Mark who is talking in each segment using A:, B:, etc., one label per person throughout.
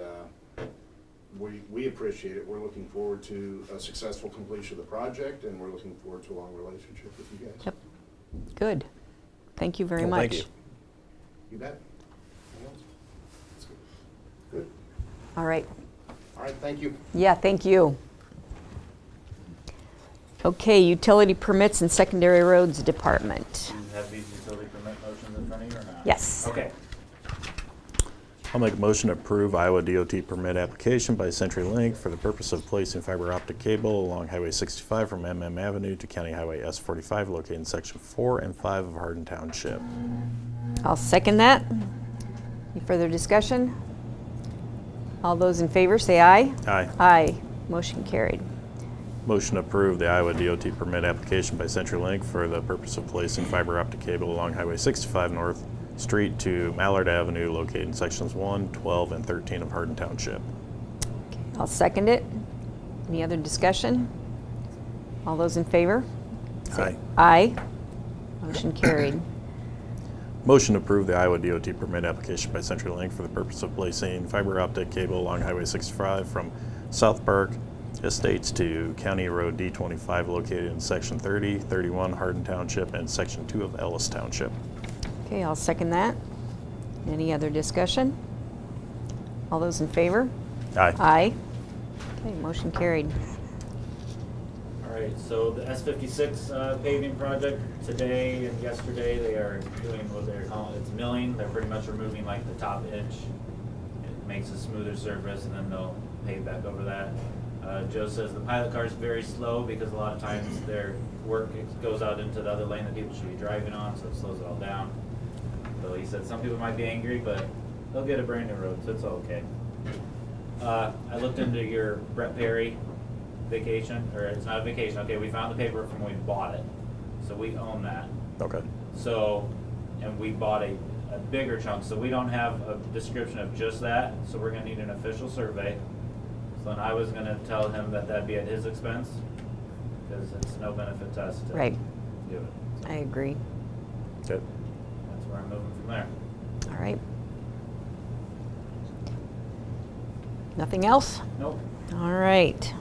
A: uh, we, we appreciate it. We're looking forward to a successful completion of the project, and we're looking forward to a long relationship with you guys.
B: Yep. Good. Thank you very
C: Well,
B: much.
C: thank you.
A: You bet. Anything else? That's good. Good.
B: All right.
A: All right, thank you.
B: Yeah, thank you. Okay, utility permits and secondary roads department.
D: Do you have these utility permit motions in front of you or not?
B: Yes.
D: Okay.
C: I'll make a motion to approve Iowa DOT permit application by CenturyLink for the purpose of placing fiber optic cable along Highway 65 from MM Avenue to County Highway S45 located in Section 4 and 5 of Hardin Township.
B: I'll second that. Any further discussion? All those in favor, say aye.
C: Aye.
B: Aye. Motion carried.
C: Motion to approve the Iowa DOT permit application by CenturyLink for the purpose of placing fiber optic cable along Highway 65 North Street to Mallard Avenue located in Sections 1, 12, and 13 of Hardin Township.
B: I'll second it. Any other discussion? All those in favor?
C: Aye.
B: Aye. Motion carried.
C: Motion to approve the Iowa DOT permit application by CenturyLink for the purpose of placing fiber optic cable along Highway 65 from South Park Estates to County Road D25 located in Section 30, 31 Hardin Township, and Section 2 of Ellis Township.
B: Okay, I'll second that. Any other discussion? All those in favor?
C: Aye.
B: Aye. Okay, motion carried.
D: All right, so the S fifty-six uh, paving project, today and yesterday, they are doing what they're calling, it's milling. They're pretty much removing like the top edge. It makes a smoother surface and then they'll pave back over that. Uh, Joe says the pilot car is very slow because a lot of times their work goes out into the other lane that people should be driving on, so it slows it all down. So he said some people might be angry, but they'll get a brand new road, so it's okay. Uh, I looked into your Brett Perry vacation, or it's not a vacation, okay, we found the paper from when we bought it. So we own that.
C: Okay.
D: So, and we bought a, a bigger chunk, so we don't have a description of just that, so we're gonna need an official survey. So then I was gonna tell him that that'd be at his expense, because it's no benefit to us to
B: Right.
D: do it.
B: I agree.
C: Okay.
D: That's where I'm moving from there.
B: All right. Nothing else?
D: Nope.
B: All right.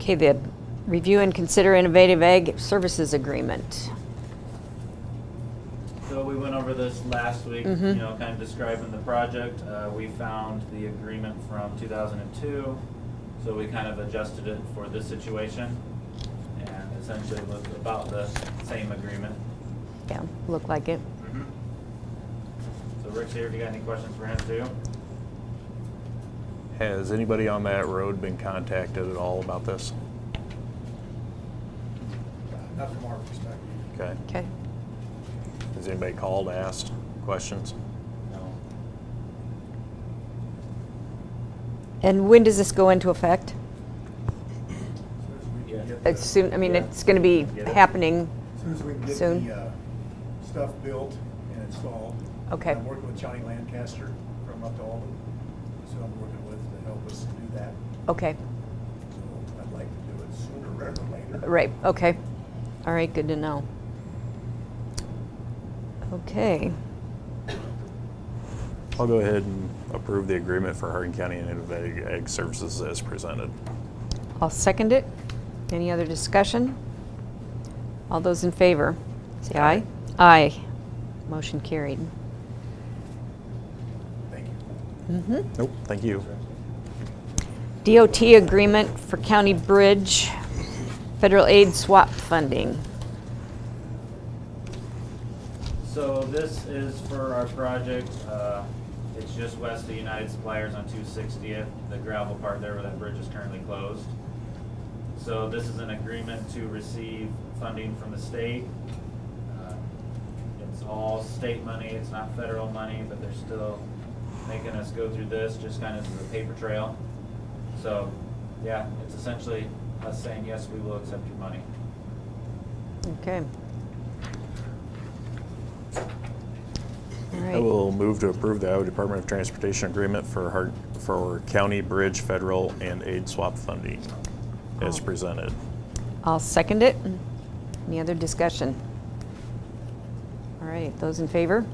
B: Okay, the review and consider innovative ag services agreement.
D: So we went over this last week, you
B: Mhm.
D: know, kind of describing the project. Uh, we found the agreement from two thousand and two, so we kind of adjusted it for this situation. And essentially was about the same agreement.
B: Yeah, looked like it.
D: So Rick's here, if you got any questions for him too?
C: Has anybody on that road been contacted at all about this?
E: Not from our perspective.
C: Okay.
B: Okay.
C: Has anybody called, asked questions?
D: No.
B: And when does this go into effect?
E: As soon as we can
D: Yeah.
E: get the-
B: It's soon, I mean,
D: Yeah.
B: it's going to be
D: Get it.
B: happening.
E: As soon as we can get
B: soon.
E: the uh, stuff built and installed.
B: Okay.
E: I'm working with Johnny Lancaster from up to Alden, so I'm working with to help us do that.
B: Okay,
E: So I'd like to do it sooner rather than later.
B: right, okay. All right, good to know. Okay,
C: I'll go ahead and approve the agreement for Hardin County Innovative Ag Services as presented.
B: I'll second it. Any other discussion? All those in favor, say aye. Aye. Motion carried.
E: Thank you.
C: Nope, thank you.
B: DOT agreement for County Bridge, federal aid swap funding.
D: So this is for our project, uh, it's just west of United Suppliers on two sixtieth, the gravel part there where that bridge is currently closed. So this is an agreement to receive funding from the state. Uh, It's all state money, it's not federal money, but they're still making us go through this, just kind of as a paper trail. So, yeah, it's essentially us saying, yes, we will accept your money.
B: Okay. All
C: I
B: right,
C: will move to approve the Iowa Department of Transportation agreement for Hard, for county bridge federal and aid swap funding as
B: Oh.
C: presented.
B: I'll second it. Any other discussion? All right, those in favor?